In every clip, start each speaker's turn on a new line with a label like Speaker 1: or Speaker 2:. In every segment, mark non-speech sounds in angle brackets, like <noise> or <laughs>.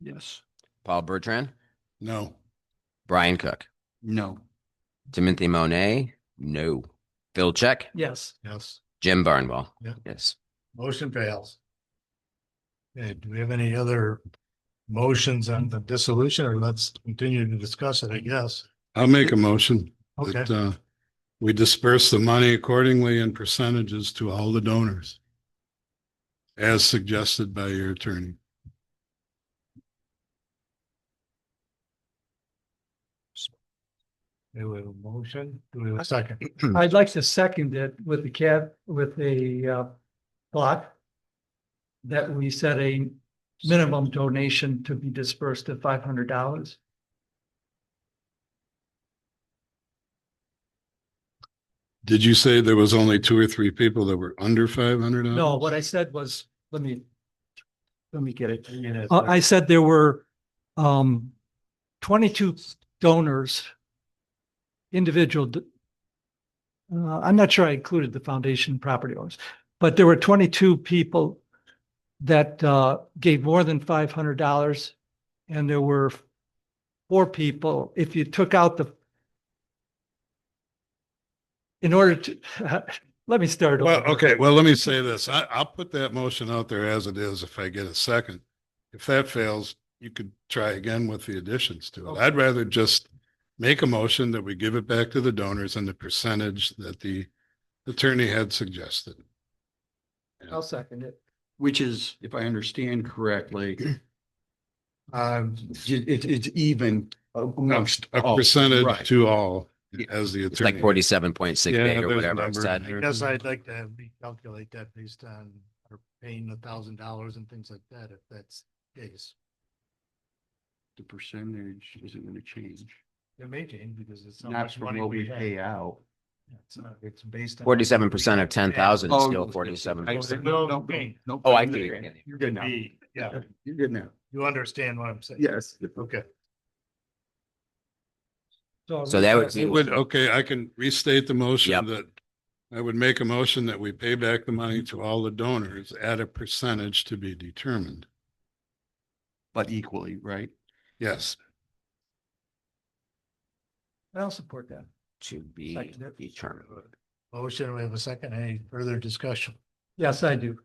Speaker 1: Yes.
Speaker 2: Paul Bertrand,
Speaker 3: No.
Speaker 2: Brian Cook,
Speaker 1: No.
Speaker 2: Timothy Monet, no. Phil Check,
Speaker 1: Yes.
Speaker 3: Yes.
Speaker 2: Jim Barnwell.
Speaker 3: Yeah.
Speaker 2: Yes.
Speaker 3: Motion fails. Okay, do we have any other motions on the dissolution or let's continue to discuss it, I guess?
Speaker 4: I'll make a motion
Speaker 3: Okay,
Speaker 4: that uh, we disperse the money accordingly in percentages to all the donors. As suggested by your attorney.
Speaker 3: do we have a motion? Do we have a second?
Speaker 5: I'd like to second it with the cap, with a uh, block that we set a minimum donation to be dispersed at five hundred dollars.
Speaker 4: Did you say there was only two or three people that were under five hundred?
Speaker 5: No, what I said was, let me, let me get it.
Speaker 3: You know,
Speaker 5: Uh, I said there were um twenty-two donors, individual. d- Uh, I'm not sure I included the foundation property owners, but there were twenty-two people that uh gave more than five hundred dollars. And there were four people, if you took out the in order to, <laughs> let me start. over.
Speaker 4: Well, okay, well, let me say this. I, I'll put that motion out there as it is if I get a second. If that fails, you could try again with the additions to it. I'd rather just make a motion that we give it back to the donors and the percentage that the attorney had suggested.
Speaker 5: I'll second it.
Speaker 1: Which is, if I understand <clears throat> correctly, uh,
Speaker 3: Um,
Speaker 1: it, it's even.
Speaker 4: A
Speaker 1: Oh,
Speaker 4: a percentage
Speaker 1: right.
Speaker 4: to all
Speaker 2: Yeah.
Speaker 4: as the
Speaker 2: It's like
Speaker 4: attorney.
Speaker 2: forty-seven point six
Speaker 4: Yeah,
Speaker 2: eight or
Speaker 4: there's
Speaker 2: whatever I
Speaker 4: numbers
Speaker 2: said.
Speaker 4: there.
Speaker 3: Yes, I'd like to recalculate that based on our paying a thousand dollars and things like that, if that's the case.
Speaker 1: The percentage isn't gonna change.
Speaker 3: It may change because it's. how
Speaker 1: Not
Speaker 3: much
Speaker 1: from
Speaker 3: money
Speaker 1: what we
Speaker 3: have.
Speaker 1: pay out.
Speaker 3: It's not- It's based. on-
Speaker 2: Forty-seven percent of ten thousand is
Speaker 1: Oh,
Speaker 2: still
Speaker 1: it's-
Speaker 2: forty-seven.
Speaker 1: I-
Speaker 3: percent.
Speaker 1: no,
Speaker 3: No,
Speaker 1: no, no,
Speaker 2: Oh, I
Speaker 1: no,
Speaker 2: agree.
Speaker 1: no, You're good now.
Speaker 3: Be- Yeah,
Speaker 1: You're good now.
Speaker 3: you understand what I'm saying?
Speaker 1: Yes.
Speaker 3: Okay.
Speaker 2: So that would
Speaker 4: It
Speaker 2: be-
Speaker 4: would, okay, I can restate the motion
Speaker 2: Yep.
Speaker 4: that I would make a motion that we pay back the money to all the donors at a percentage to be determined.
Speaker 1: But equally, right?
Speaker 4: Yes.
Speaker 5: I'll support that.
Speaker 2: To be
Speaker 5: Second.
Speaker 2: determined.
Speaker 3: Motion, we have a second, any further discussion? Mm-hmm.
Speaker 5: Yes, I do.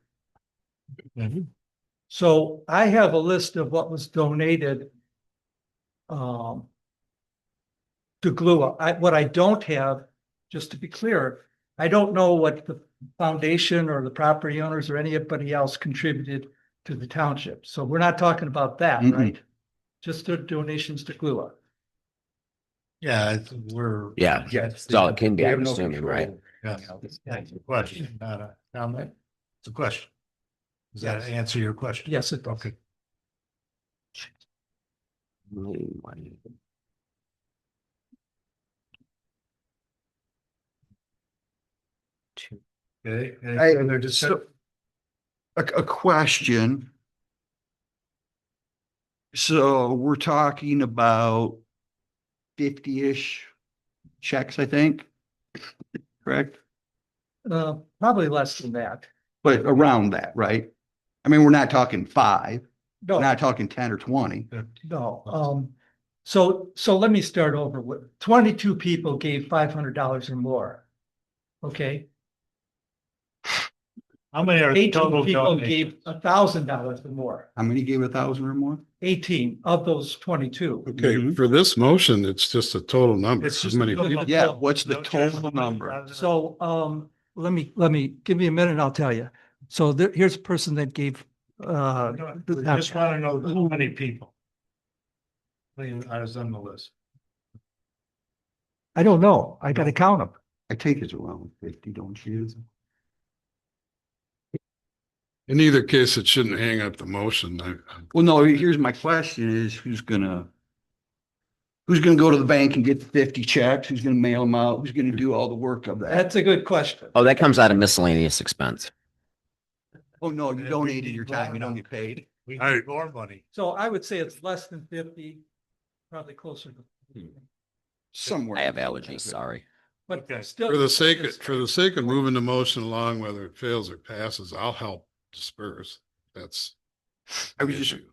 Speaker 5: So I have a list of what was donated um, to Glua. I, what I don't have, just to be clear, I don't know what the foundation or the property owners or anybody else contributed to the township. So we're not talking about that,
Speaker 1: Mm-mm.
Speaker 5: right? Just the donations to Glua.
Speaker 3: Yeah, it's- we're.
Speaker 2: Yeah,
Speaker 1: yeah,
Speaker 2: That's all it can
Speaker 1: We
Speaker 2: be,
Speaker 1: have
Speaker 2: I'm
Speaker 1: no
Speaker 2: assuming, right?
Speaker 1: control.
Speaker 3: Yeah. Yeah, It's a question, not a comment. It's a question. Does that
Speaker 5: Yes.
Speaker 3: answer your question?
Speaker 5: Yes, it does.
Speaker 3: Okay. Okay, any
Speaker 1: I-
Speaker 3: further
Speaker 1: So,
Speaker 3: discussion?
Speaker 1: a, a question. So we're talking about fifty-ish checks, I think, correct?
Speaker 5: Uh, probably less than that.
Speaker 1: But around that, right? I mean, we're not talking five, we're
Speaker 5: No,
Speaker 1: not talking ten or twenty.
Speaker 5: no. Um, so, so let me start over with twenty-two people gave five hundred dollars or more. Okay?
Speaker 3: How many are total
Speaker 5: Eighteen people
Speaker 3: donations?
Speaker 5: gave a thousand dollars or more,
Speaker 1: How many gave a thousand or more?
Speaker 5: eighteen of those twenty-two.
Speaker 4: Okay,
Speaker 1: Mhm.
Speaker 4: for this motion, it's just a total number.
Speaker 3: It's
Speaker 4: How
Speaker 3: just a
Speaker 4: many-
Speaker 3: total-
Speaker 1: Yeah, what's the
Speaker 3: No change.
Speaker 1: total number?
Speaker 5: So, um, let me, let me, give me a minute, I'll tell you. So there, here's a person that gave, uh,
Speaker 3: No, we Just want to know how many people. Please, I was on the list.
Speaker 5: I don't know, I gotta count them.
Speaker 1: I think it's around fifty, don't you?
Speaker 4: In either case, it shouldn't hang up the motion. I, I-
Speaker 1: Well, no, here's my question is who's gonna? Who's gonna go to the bank and get the fifty checks? Who's gonna mail them out? Who's gonna do all the work of that?
Speaker 5: That's a good question.
Speaker 2: Oh, that comes out of miscellaneous expense.
Speaker 1: Oh, no, you donated your time, you don't get paid.
Speaker 3: We
Speaker 4: I-
Speaker 3: need more money.
Speaker 5: So I would say it's less than fifty, probably closer to.
Speaker 1: Somewhere.
Speaker 2: I have allergies, sorry.
Speaker 5: But
Speaker 3: Okay.
Speaker 5: still.
Speaker 4: For the sake, of
Speaker 5: it's-
Speaker 4: for the sake of moving the motion along, whether it fails or passes, I'll help disperse. That's.
Speaker 1: I
Speaker 4: the
Speaker 1: was just
Speaker 4: issue.